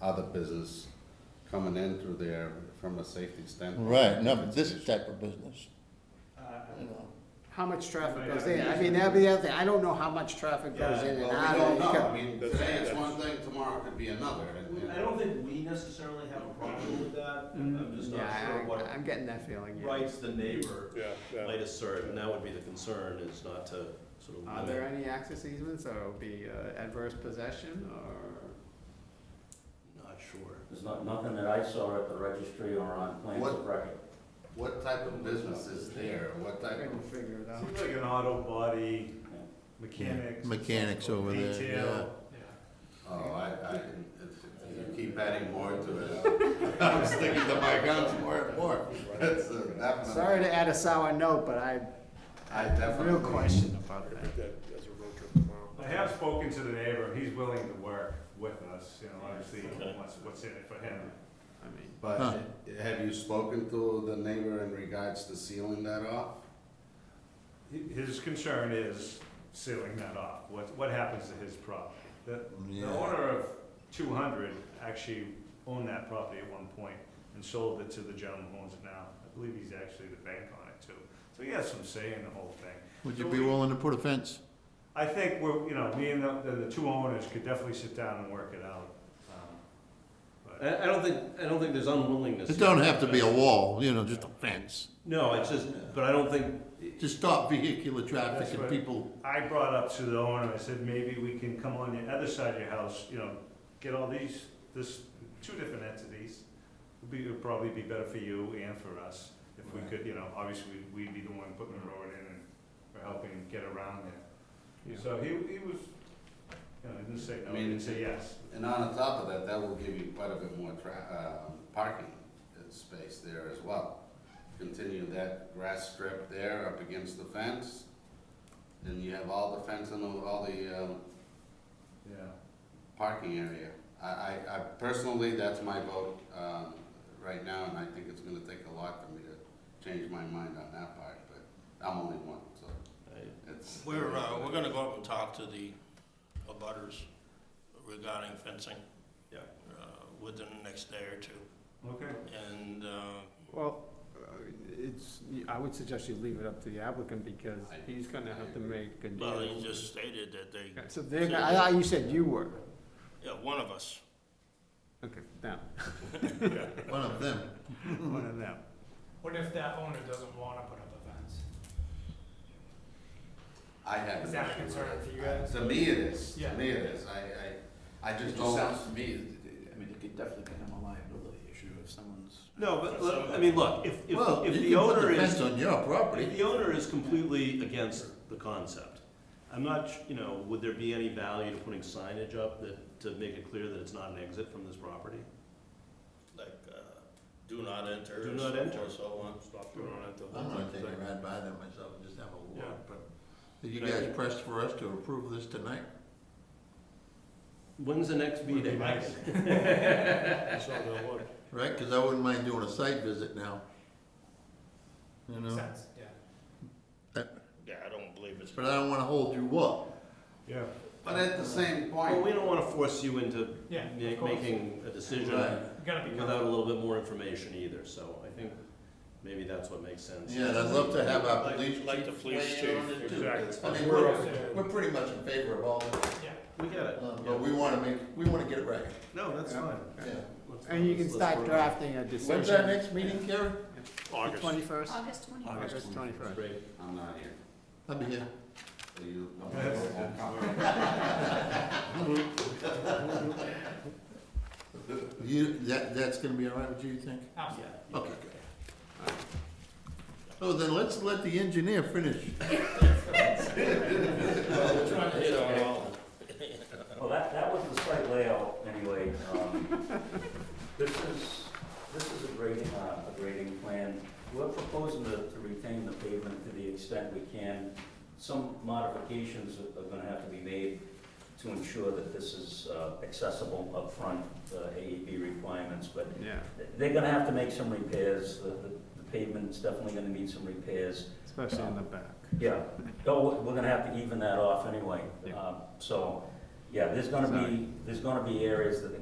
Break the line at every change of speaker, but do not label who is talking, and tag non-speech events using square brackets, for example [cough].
other business coming in through there from a safety standpoint.
Right, no,
It's
but
an
this
issue.
type of business,
Uh,
you know.
How much traffic
Yeah,
goes
yeah,
in? I
yeah.
mean, that'd be the other thing. I don't know how much traffic goes
Yeah,
in and
Well,
out.
we don't
It
know, I
could-
mean,
That's-
today it's
that's-
one thing, tomorrow it could be another, and,
we-
and-
I don't think we necessarily have a problem with that, I'm
Mm-hmm.
just not
Yeah,
sure
I-
what
I'm getting that feeling, yeah.
rights the neighbor
Yeah, yeah.
might assert, and that would be the concern, is not to sort
Are
of
there
limit.
any access easements or it'll be uh, adverse possession or?
Not sure.
There's not, nothing that I saw at the registry or on plans
What-
of record.
what type of business is there, what
I
type
couldn't
of,
figure it out.
Seems like an auto body, mechanics.
Mechanics over there,
Detail.
oh, I, I, it's, you keep adding more to it. [laughs] I'm sticking to my guns more and more, that's a definite.
Sorry to add a sour note, but I,
I
have real
definitely-
question about that.
Repeat that as a road trip tomorrow.
I have spoken to the neighbor, he's willing to work with us, you know, obviously,
Okay.
what's, what's in it for him.
I mean,
Huh.
But have you spoken to the neighbor in regards to sealing that off?
Hi- His concern is sealing that off, what, what happens to his property? The, the
Yeah.
owner of two hundred actually owned that property at one point and sold it to the gentleman who owns it now. I believe he's actually the bank on it too, so he has some say in the whole thing.
Would you be willing to put a fence?
I think we're, you know, me and the, the- the two owners could definitely sit down and work it out. um, But,
I, I don't think, I don't think there's unwillingness.
It don't have to be a wall, you know, just a fence,
No, it's just, but I don't think,
to stop vehicular
That's
traffic and
right.
people,
I brought up to the owner, I said, maybe we can come on the other side of your house, you know, get all these, this, two different entities. Would be, would probably be better for you and for us, if we
Right.
could, you know, obviously, we'd be the one putting the road in and, or helping get around there.
Yeah.
So he, he was, you know, he didn't say
I
no, he
mean,
didn't say yes.
And on top of that, that will give you quite a bit more tra- um, parking space there as well. Continue that grass strip there up against the fence, and you have all the fence and all the, um,
Yeah.
parking area. I, I, I personally, that's my vote, um, right now, and I think it's gonna take a lot for me to change my mind on that part, but I'm only one, so it's.
We're, uh, we're gonna go up and talk to the abutters regarding fencing.
Yeah.
Uh, within the next day or two,
Okay.
and, uh,
Well, uh, it's, I would suggest you leave it up to the applicant because
I-
he's gonna have to make a deal.
well, he just stated that they,
So they're, gonna- I thought you said you were.
yeah, one of us.
Okay, now, [laughs]
one of them.
One of them.
What if that owner doesn't wanna put up a fence?
I have.
Is that a
an issue with
concern
it.
for you guys?
To me it is,
Yeah.
to me it is, I, I, I
It
just
just
don't,
sounds to me, I mean, it could definitely become a liability issue if someone's.
no, but, look, I mean, look, if, if,
Well,
if
you
the
can put
owner
the fence
is,
on your
if
property,
the owner is completely against the concept, I'm not, sh- you know, would there be any value to putting signage up that, to make it clear that it's not an exit from this property?
Like, uh, do not enter.
Do not
so-
enter.
So on, stop, do not enter.
I'm gonna take a ride by there myself and just have a
Yeah.
walk, but are you
But I
guys
think-
pressed for us to approve this tonight?
When's the next
Would be
meeting?
nice.
So they'll look.
Right, cause I wouldn't mind doing a site visit now. You know,
Sense, yeah.
Yeah, I don't believe it's.
but I don't wanna hold you up,
Yeah.
but at the same
Well, we
point,
don't wanna force you into
Yeah,
ma-
of course.
making a decision
right?
You gotta be
without a
careful.
little bit more information either, so I think maybe that's what makes sense.
Yeah, and I'd love to have our
Like-
police chief
like the police
weigh in on
chief.
it too.
Exactly.
I mean, we're, we're pretty much in favor of all this,
Yeah.
We get it.
um, but we wanna make, we wanna get it right,
No, that's
Yeah.
fine.
yeah.
Let's-
and you can
let's
start
work on it.
drafting a decision.
When's our next meeting, Karen?
August.
Twenty-first?
August twenty first.
August twenty-first.
Great.
I'm not here,
I'll be here.
so you.
You, that, that's gonna be all right with you, you think?
Absolutely.
Okay, good. So then let's let the engineer finish.
Hit on all of them.
Well, that, that was the site layout anyway. Um, This is, this is a grading, uh, a grading plan. We're proposing to to retain the pavement to the extent we can. Some modifications are are gonna have to be made to ensure that this is uh, accessible up front, uh AEB requirements, but
Yeah,
they're gonna have to make some repairs. The the- the pavement's definitely gonna need some repairs.
especially in the back.
Yeah, no, we- we're gonna have to even that off anyway.
Yeah.
Um, So, yeah, there's gonna be, there's gonna be areas that